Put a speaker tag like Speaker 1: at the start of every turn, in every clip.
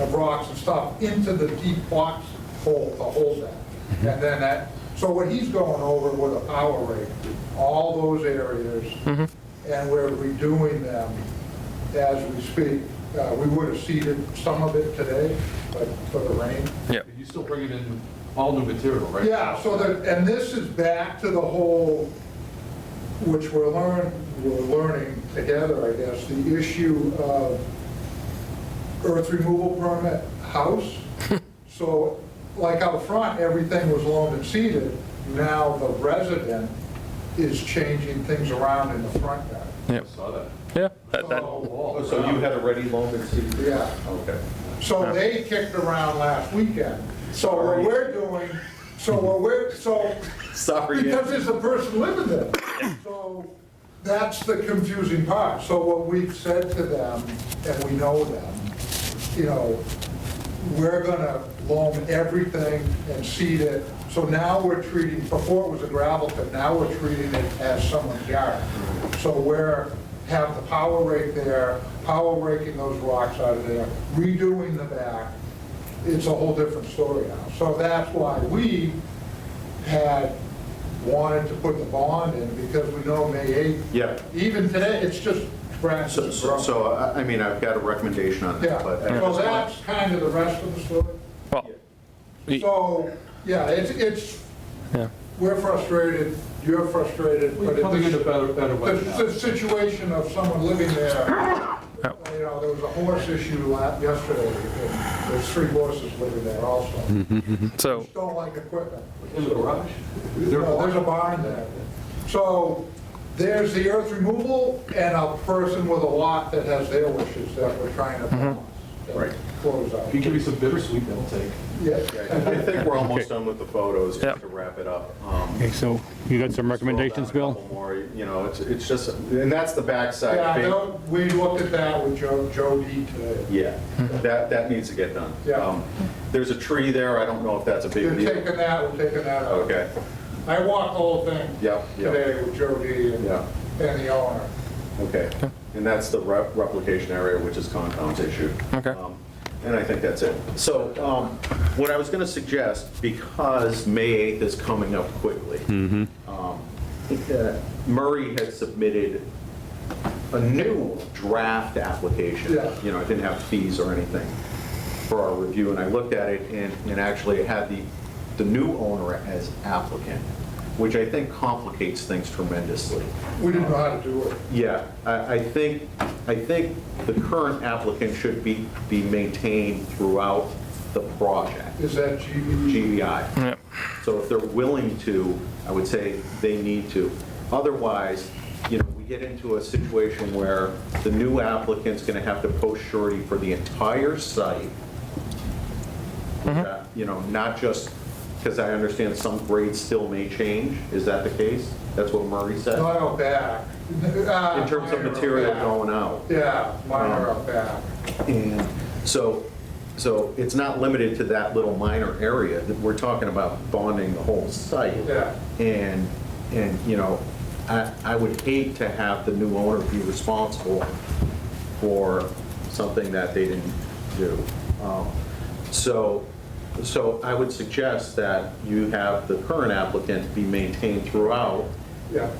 Speaker 1: of rocks and stuff into the deep box hole to hold that. And then that, so what he's going over with a power rake, all those areas, and we're redoing them as we speak. Uh, We would have seeded some of it today, but for the rain.
Speaker 2: Yep.
Speaker 3: You still bring it in with all new material, right?
Speaker 1: Yeah, so that, and this is back to the whole, which we're learn, we're learning together, I guess, the issue of earth removal permit house. So, like out front, everything was loaned and seeded, now the resident is changing things around in the front yard. Oh,
Speaker 2: Yep.
Speaker 3: Saw that. Oh,
Speaker 2: Yeah, that, that,
Speaker 1: So-
Speaker 3: Wall
Speaker 4: Oh, So you
Speaker 3: around.
Speaker 4: had already loaned and seeded?
Speaker 1: Yeah.
Speaker 4: Okay.
Speaker 1: So they kicked around last weekend. So what we're doing, so what we're, so.
Speaker 4: Sorry.
Speaker 1: Because there's a person living there. So that's the confusing part. So what we've said to them, and we know them, you know, we're gonna loam everything and seed it. So now we're treating, before it was a gravel pit, now we're treating it as someone's yard. So we're, have the power rake there, power raking those rocks out of there, redoing the back. It's a whole different story now. So that's why we had wanted to put the bond in because we know May 8th.
Speaker 4: Yeah.
Speaker 1: Even today, it's just
Speaker 4: So,
Speaker 1: branches.
Speaker 4: so- so, I I mean, I've got a recommendation on
Speaker 1: Yeah,
Speaker 4: that, but.
Speaker 1: so
Speaker 4: I just want-
Speaker 1: that's kind of the rest of the story.
Speaker 2: well, y-
Speaker 1: So, yeah, it's, it's,
Speaker 2: yeah.
Speaker 1: we're frustrated, you're frustrated, but
Speaker 3: We're coming in a
Speaker 1: it's
Speaker 3: better, better way now.
Speaker 1: the, the situation of someone living there, you know, there was a horse issue la- yesterday, and there's three horses living there also.
Speaker 3: Mm-hmm.
Speaker 2: So,
Speaker 1: Don't like equipment.
Speaker 3: In the garage?
Speaker 1: No, There's a barn there. So there's the earth removal and a person with a lot that has their wishes that we're trying to balance
Speaker 4: Right.
Speaker 1: and close out.
Speaker 3: If Mm-hmm. you give me some bittersweet, that'll take.
Speaker 1: Yes.
Speaker 4: I think we're almost done with the photos,
Speaker 2: Yep.
Speaker 4: just to wrap it up. Um,
Speaker 5: Okay, so you got some recommendations,
Speaker 4: scroll down a
Speaker 5: Bill?
Speaker 4: couple more, You know, it's, it's just, and that's the backside.
Speaker 1: Yeah,
Speaker 4: big-
Speaker 1: no, we looked at that with Joe, Joe D today.
Speaker 4: Yeah, that, that needs to get done.
Speaker 1: Yeah.
Speaker 4: Um, There's a tree there, I don't know if that's a
Speaker 1: You're
Speaker 4: big deal.
Speaker 1: taking that, we're taking that out.
Speaker 4: Okay,
Speaker 1: I walked the whole thing
Speaker 4: Yep, yep.
Speaker 1: today with Joe D and
Speaker 4: Yeah.
Speaker 1: and the owner.
Speaker 4: okay. And that's the rep- replication area, which is Concom's issue.
Speaker 2: Okay.
Speaker 4: Um, And I think that's it. So um, what I was going to suggest, because May 8th is coming up quickly, um, uh, Murray has submitted a new draft application.
Speaker 1: Yeah.
Speaker 4: You know, it didn't have fees or anything for our review, and I looked at it and, and actually it had the, the new owner as applicant, which I think complicates things tremendously.
Speaker 1: We didn't know how to do it.
Speaker 4: Yeah, I, I think, I think the current applicant should be, be maintained throughout the project,
Speaker 1: Is that GB?
Speaker 4: GBI.
Speaker 2: Yep.
Speaker 4: So if they're willing to, I would say they need to. Otherwise, you know, we get into a situation where the new applicant's gonna have to post surety for the entire site. Uh, You know, not just, because I understand some grades still may change, is that the case? That's what Murray said?
Speaker 1: Not out back. Ah,
Speaker 4: In terms of material Uh-huh. going out?
Speaker 1: Yeah, minor up back.
Speaker 4: And so, so it's not limited to that little minor area, that we're talking about bonding the whole site.
Speaker 1: Yeah.
Speaker 4: And, and, you know, I, I would hate to have the new owner be responsible for something that they didn't do. Um, So, so I would suggest that you have the current applicant be maintained throughout
Speaker 1: Yeah.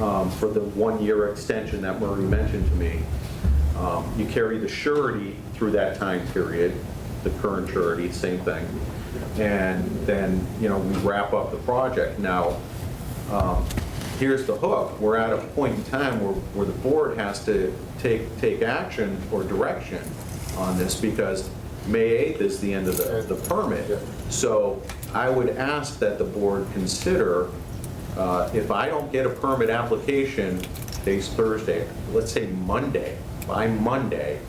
Speaker 4: um, for the one-year extension that Murray mentioned to me. Um, You carry the surety through that time period, the current surety, same thing. And then, you know, we wrap up the project. Now, um, here's the hook. We're at a point in time where, where the board has to take, take action or direction on this because May 8th is the end of the, the permit. So I would ask that the board consider uh, If I don't get a permit application, today's Thursday, let's say Monday, by Monday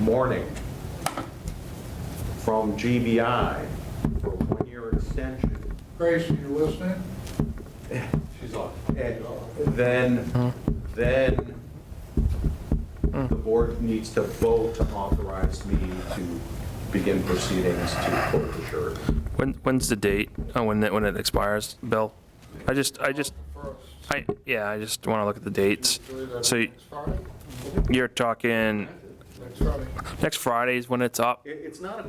Speaker 4: morning, from GBI for a one-year extension,
Speaker 1: Grace, are you listening?
Speaker 3: She's off.
Speaker 4: and then, then the board needs to vote to authorize me to begin proceedings to quote the surety.
Speaker 2: When, when's the date, uh, when it, when it expires, Bill? I just, I just, I, yeah, I just want to look at the dates. So y-
Speaker 1: Next Friday?
Speaker 2: you're talking,
Speaker 1: Next Friday.
Speaker 2: next Friday is when it's up?
Speaker 4: It- It's not a